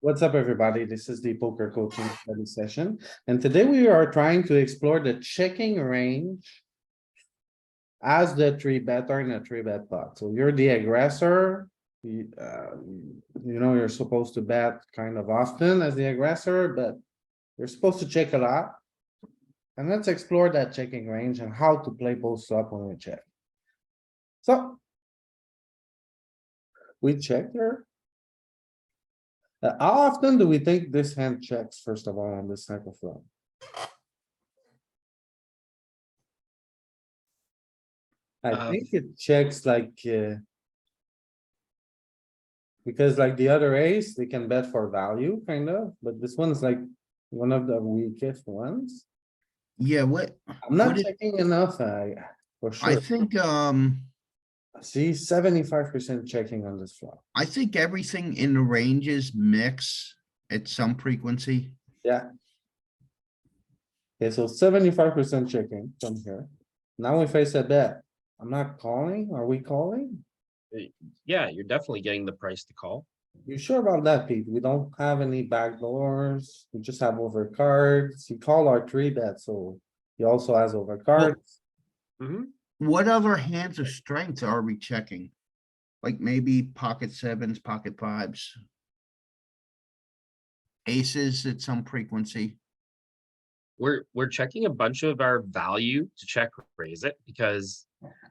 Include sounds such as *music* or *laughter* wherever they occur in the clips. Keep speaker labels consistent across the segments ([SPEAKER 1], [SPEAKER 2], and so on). [SPEAKER 1] What's up, everybody? This is the poker coaching study session, and today we are trying to explore the checking range. As the three bet or in a three bet pot, so you're the aggressor. You, uh, you know, you're supposed to bet kind of often as the aggressor, but you're supposed to check a lot. And let's explore that checking range and how to play both up when we check. So. We check here. Uh, how often do we think this hand checks first of all on this type of flop? I
[SPEAKER 2] Uh,
[SPEAKER 1] think it checks like, uh. Because like the other ace, they can bet for value kind of, but this one's like one of the weakest ones.
[SPEAKER 2] Yeah, what,
[SPEAKER 1] I'm not
[SPEAKER 2] What is-
[SPEAKER 1] checking enough, I, for
[SPEAKER 2] I
[SPEAKER 1] sure.
[SPEAKER 2] think, um,
[SPEAKER 1] See, seventy-five percent checking on this flop.
[SPEAKER 2] I think everything in the ranges mix at some frequency.
[SPEAKER 1] Okay, so seventy-five percent checking from here. Now we face a bet. I'm not calling. Are we calling?
[SPEAKER 3] Yeah, you're definitely getting the price to call.
[SPEAKER 1] You sure about that, Pete? We don't have any backdoors. We just have overcards. You call our three bet, so he also has overcards.
[SPEAKER 3] hmm
[SPEAKER 2] What other hands of strength are we checking? Like maybe pocket sevens, pocket fives? Aces at some frequency.
[SPEAKER 3] We're, we're checking a bunch of our value to check raise it because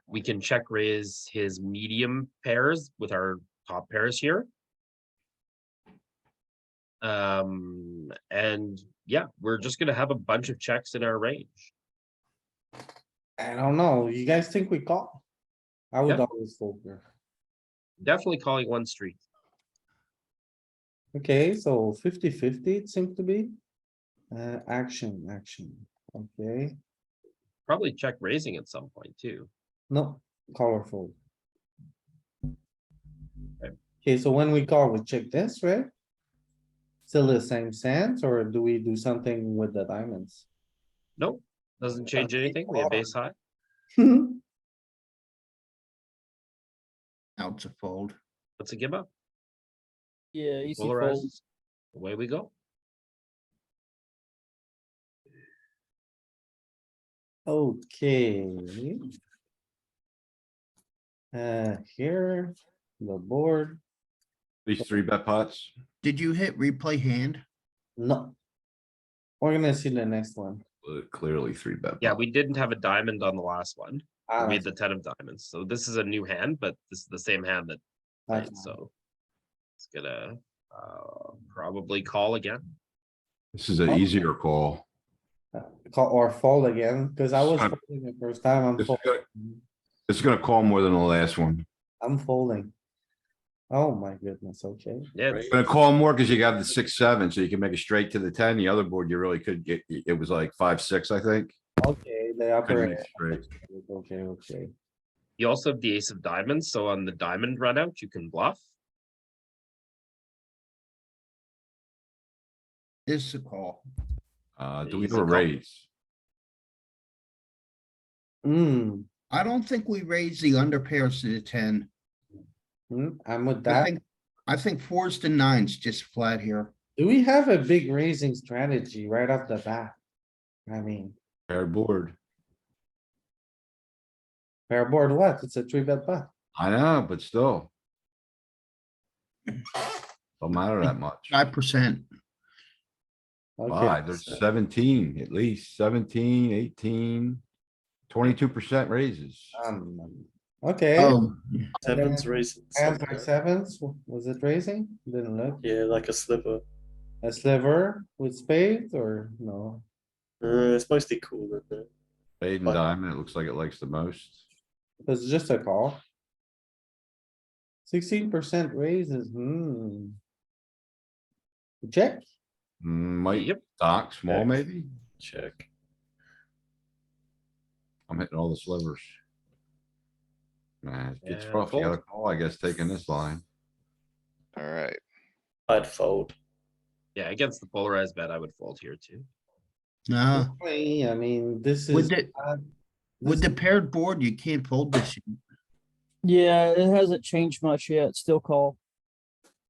[SPEAKER 3] we can check raise his medium pairs with our top pairs here. Um, and yeah, we're just gonna have a bunch of checks in our range.
[SPEAKER 1] I don't know. You guys think we call? I would
[SPEAKER 3] Yeah.
[SPEAKER 1] always fold here.
[SPEAKER 3] Definitely calling one street.
[SPEAKER 1] Okay, so 50 50 it seems to be. Uh, action, action, okay,
[SPEAKER 3] Probably check raising at some point too.
[SPEAKER 1] no, colorful.
[SPEAKER 3] Okay.
[SPEAKER 1] Okay, so when we call, we check this, right? Still the same sense, or do we do something with the diamonds? *laughs*
[SPEAKER 3] Nope, doesn't change
[SPEAKER 1] Okay,
[SPEAKER 3] anything. We have
[SPEAKER 1] call.
[SPEAKER 3] ace high.
[SPEAKER 2] Out to fold.
[SPEAKER 3] What's a give up?
[SPEAKER 4] Yeah, easy fold.
[SPEAKER 3] Polarizes. Away we go.
[SPEAKER 1] Okay. Uh, here, the board,
[SPEAKER 5] These three bet pots,
[SPEAKER 2] Did you hit replay hand?
[SPEAKER 1] no. We're gonna see the next one.
[SPEAKER 5] uh, clearly three bet.
[SPEAKER 3] Yeah,
[SPEAKER 5] pot.
[SPEAKER 3] we didn't have a diamond on the last one.
[SPEAKER 1] Ah,
[SPEAKER 3] We made the ten of diamonds, so this is a new hand, but this is the same hand that
[SPEAKER 1] okay.
[SPEAKER 3] played, so. It's gonna, uh, probably call again.
[SPEAKER 5] This is an
[SPEAKER 1] Oh.
[SPEAKER 5] easier call.
[SPEAKER 1] Call or fold again, cause I was
[SPEAKER 5] Son.
[SPEAKER 1] folding the first time, I'm
[SPEAKER 5] It's
[SPEAKER 1] folding,
[SPEAKER 5] gonna, it's gonna call more than the last one.
[SPEAKER 1] I'm folding. Oh my goodness, okay,
[SPEAKER 3] Yeah,
[SPEAKER 5] It's
[SPEAKER 3] it's-
[SPEAKER 5] gonna call more because you got the six, seven, so you can make it straight to the ten. The other board, you really could get, it was like five, six, I think.
[SPEAKER 1] okay, they
[SPEAKER 5] Couldn't
[SPEAKER 1] operate,
[SPEAKER 5] make straight.
[SPEAKER 1] okay, okay.
[SPEAKER 3] you also have the ace of diamonds, so on the diamond run out, you can bluff.
[SPEAKER 2] This is a call.
[SPEAKER 5] Uh, do we
[SPEAKER 3] Easy
[SPEAKER 5] have a
[SPEAKER 3] call.
[SPEAKER 5] raise?
[SPEAKER 1] Hmm,
[SPEAKER 2] I don't think we raised the under pairs to the ten.
[SPEAKER 1] hmm, I'm with
[SPEAKER 2] I
[SPEAKER 1] that.
[SPEAKER 2] think, I think fours to nines just flat here.
[SPEAKER 1] Do we have a big raising strategy right off the bat? I mean,
[SPEAKER 5] Paired board.
[SPEAKER 1] pair board what? It's a three bet pot.
[SPEAKER 5] I know, but still. Don't matter
[SPEAKER 2] *laughs*
[SPEAKER 5] that much.
[SPEAKER 2] Five percent.
[SPEAKER 1] Okay,
[SPEAKER 5] Five, there's seventeen, at least 17, 18, 22 percent raises.
[SPEAKER 1] um, okay,
[SPEAKER 2] Oh,
[SPEAKER 4] Sevens raising.
[SPEAKER 1] hands like sevens, was it raising? Didn't look,
[SPEAKER 4] Yeah, like a sliver.
[SPEAKER 1] a sliver with spades or no?
[SPEAKER 4] Uh, it's mostly cool, isn't it?
[SPEAKER 5] Spade and
[SPEAKER 4] But-
[SPEAKER 5] diamond, it looks like it likes the most.
[SPEAKER 1] It's just a call. Sixteen percent raises, hmm. Check,
[SPEAKER 5] Mm, Might
[SPEAKER 3] Yep,
[SPEAKER 5] dock small,
[SPEAKER 4] Check.
[SPEAKER 5] maybe?
[SPEAKER 4] Check.
[SPEAKER 5] I'm hitting all the slivers. Nah, it's
[SPEAKER 3] Yeah,
[SPEAKER 5] rough.
[SPEAKER 3] fold.
[SPEAKER 5] You gotta call, I guess, taking this line.
[SPEAKER 6] Alright,
[SPEAKER 4] I'd fold.
[SPEAKER 3] yeah, against the polarized bet, I would fold here too.
[SPEAKER 2] no.
[SPEAKER 1] Hey, I mean, this is.
[SPEAKER 2] With the,
[SPEAKER 1] bad.
[SPEAKER 2] with
[SPEAKER 1] This-
[SPEAKER 2] the paired board, you can't fold this.
[SPEAKER 7] Yeah, it hasn't changed much yet. Still call.